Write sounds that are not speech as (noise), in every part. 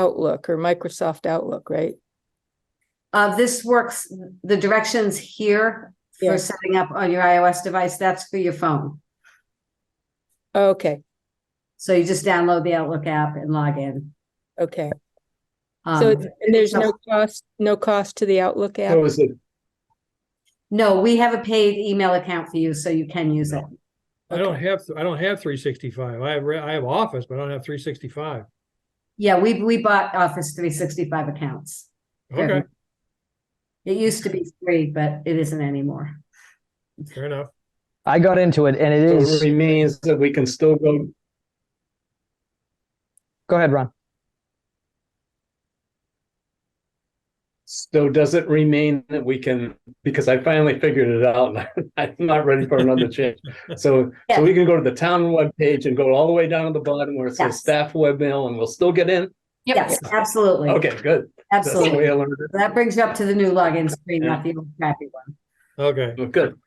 Outlook or Microsoft Outlook, right? Uh, this works, the directions here for Yeah. setting up on your iOS device, that's for your phone. Okay, So you just download the Outlook app and log in. okay. So, Um, it's- and there's no cost, no cost to the Outlook app? So is it, no, we have a paid email account for you, so you can use it. I don't have, I don't have three sixty-five. I have, re- I have Office, but I don't have three sixty-five. Yeah, we, we bought Office three sixty-five accounts. for Okay, everyone. It used to be free, but it isn't anymore. fair enough. I got into it and it So is. it remains that we can still go, Go ahead, Ron. so does it remain that we can, because I finally figured it out. and (laughs) I'm not ready for (laughs) another change. So, so we can go to the town webpage and go all the way down to the bottom where it says Yes. staff webmail and we'll still get in? Yes, absolutely. Okay, good. That's the way Absolutely. I learned it. That brings you up to the new login screen, Yeah. not the old crappy one. Okay, Well, Good.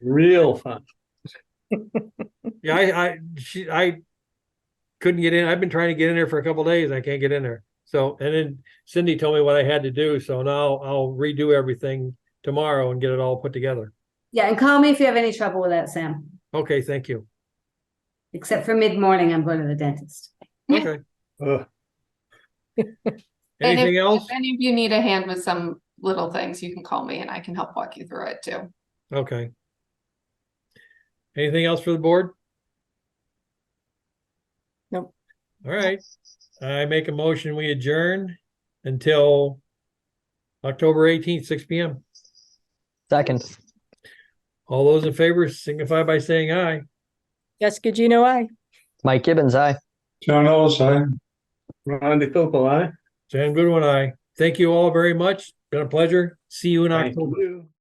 Real fun. yeah, I, I, she, I couldn't get in. I've been trying to get in there for a couple days. I can't get in there. So, and then Cindy told me what I had to do, so now I'll redo everything tomorrow and get it all put together. Yeah, and call me if you have any trouble with that, Sam. Okay, thank you. Except for mid-morning, I'm going to the dentist. Okay, Ugh, And if- anything else? If any of you need a hand with some little things, you can call me and I can help walk you through it too. Okay. Anything else for the board? Nope. All right, I make a motion, we adjourn until October eighteenth, six P M. Second. All those in favor signify by saying aye. Jessica Gino, I. Mike Gibbons, aye. John Ellis, aye. Ron DeFilippo, aye? Sam Goodwin, aye. Thank you all very much. Been a pleasure. See you in Thank October. you.